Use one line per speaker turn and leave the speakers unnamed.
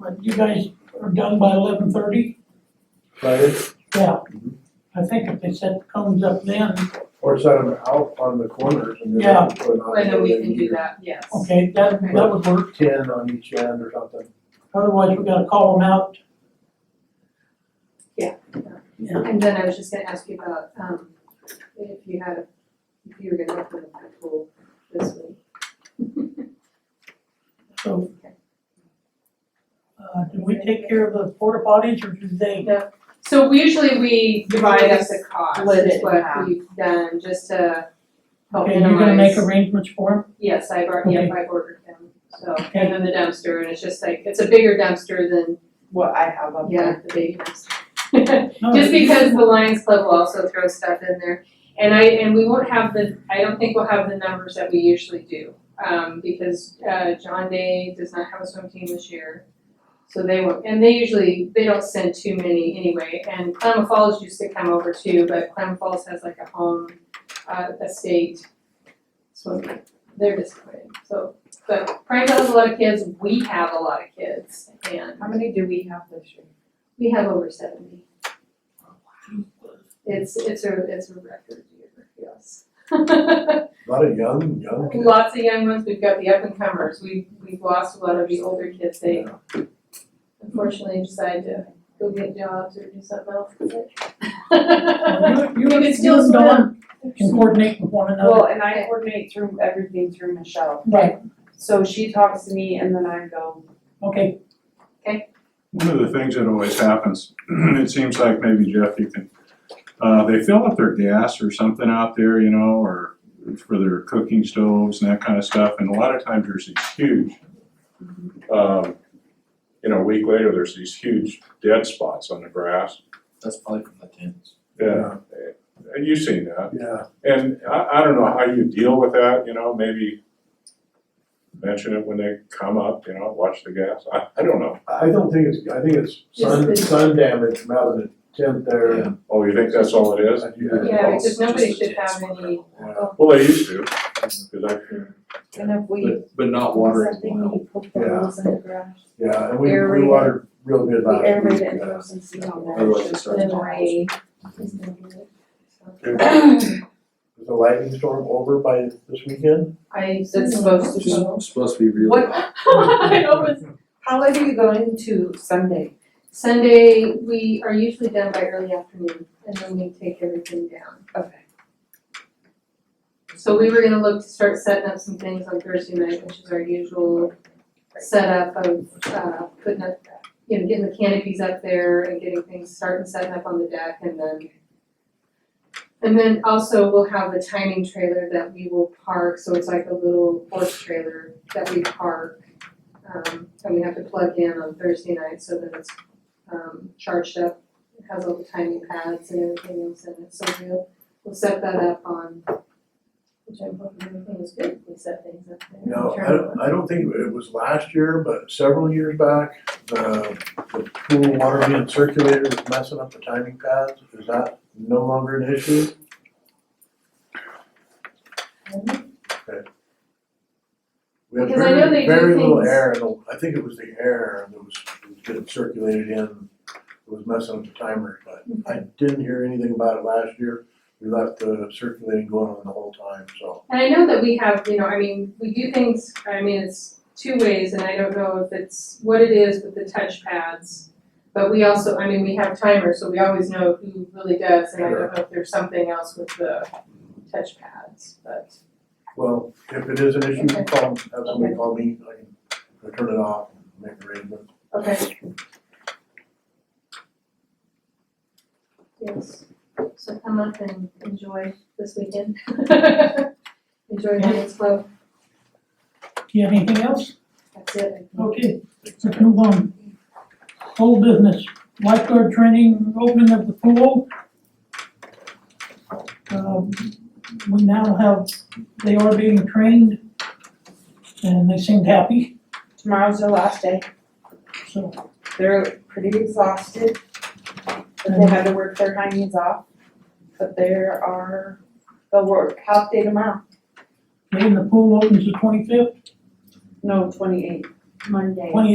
But you guys are done by eleven thirty?
Friday,
Yeah. I think if they set the cones up then,
or set them out on the corners and
Yeah.
then put an
Well, then Oh, we can do
either
that, yes.
okay, that, that would work.
ten on each end or something.
Otherwise, we gotta call them out.
And then I was just gonna ask you about, um, if you had, if you were gonna open up the pool this week.
So, uh, do we take care of the porta potties or do they?
So we usually we divide up the cost,
Split
is
it in
what
half.
we've done, just to help
Okay,
Oh, minimize.
you're gonna make arrangements for
Yes, I've already,
Okay.
yeah, I've ordered them, so,
Okay.
and then the dumpster, and it's just like, it's a bigger dumpster than,
what I have up there.
yeah, the big dumpster.
them? No,
Just because the Lions Club will also throw stuff in there. And I, and we won't have the, I don't think we'll have the numbers that we usually do, um, because, uh, John Day does not have a swim team this year. So they won't, and they usually, they don't send too many anyway, and Klamath Falls used to come over too, but Klamath Falls has like a home, uh, estate. So they're disappointed, so, but Frank has a lot of kids, we have a lot of kids, and
How many do we have this year?
we have over seventy. It's, it's a, it's a record year, yes.
A Lot of young, young kids.
Lots of young ones, we've got the up and comers, we've, we've lost a lot of the older kids, they
Yeah.
unfortunately decide to go get jobs or do something else.
Well, You, you,
We could
you
still
and Dawn can coordinate with one another.
Well, and I coordinate through everything through Michelle.
Right,
So she talks to me and then I go,
okay,
One of the things that always happens, it seems like maybe Jeff, you can, uh, they fill up their gas or something out there, you know, or for their cooking stoves and that kind of stuff, and a lot of times there's these huge, um, you know, a week later, there's these huge dead spots on the grass.
That's probably from the tins.
Yeah. And you've seen that,
Yeah,
and I, I don't know how you deal with that, you know, maybe mention it when they come up, you know, watch the gas, I, I don't know.
I don't think it's, I think it's sun,
Just the-
sun damage from out of the tent there and.
Oh, you think that's all it is?
I do that.
Yeah, because
Just the
nobody should
tins
have
were
any-
Yeah.
Well, they used to, 'cause I,
and if we,
But, but not watering
something,
well.
we put the hose in the garage.
Yeah, and we, we
Aerated.
watered real good
We
last
aerate
week.
it and
yeah.
throw some seed on
Otherwise
there,
it
it's
starts
been
to-
rain.
Is the lightning storm over by this weekend?
I,
It's supposed to be.
Just supposed to be real.
What,
I hope it's
how late are you going to Sunday?
Sunday, we are usually done by early afternoon, and then we take everything down.
Okay.
So we were gonna look to start setting up some things on Thursday night, which is our usual setup of, uh, putting up, you know, getting the canopies up there and getting things, starting setting up on the deck and then. And then also we'll have the timing trailer that we will park, so it's like a little horse trailer that we park. Um, and we have to plug in on Thursday night so that it's, um, charged up, it has all the timing pads and everything else in it, so we'll, we'll set that up on which I'm hoping everything is good, we set things up there.
No, I
Turn it on.
don't, I don't think it was last year, but several years back, the, the pool water being circulated was messing up the timing pads. Is that no longer an issue? We had
Because I know
very,
they do
very little
things-
air, in the- I think it was the air that was was getting circulated in, that was messing up the timers, but
Mm-hmm.
I didn't hear anything about it last year. We left the circulating going on the whole time, so.
And I know that we have, you know, I mean, we do things, I mean, it's two ways, and I don't know if it's what it is with the touch pads. But we also, I mean, we have timers, so we always know who really does, and I don't know if there's something else with the touch pads, but.
Well, if it is an issue,
Okay.
call, have somebody call me, I can, I turn it off and make arrangements.
Okay. Yes, so come up and enjoy this weekend. Enjoy Lions Club,
do you have anything else?
that's it.
Okay, let's move on. Whole business, lifeguard training, opening of the pool. Um, we now have, they are being trained and they seemed happy,
Tomorrow's their last day.
so.
They're pretty exhausted, but they had to work their hinds off. But there are, they'll work half day tomorrow,
And the pool opens the twenty-fifth,
no, twenty-eight, Monday.
twenty-eighth.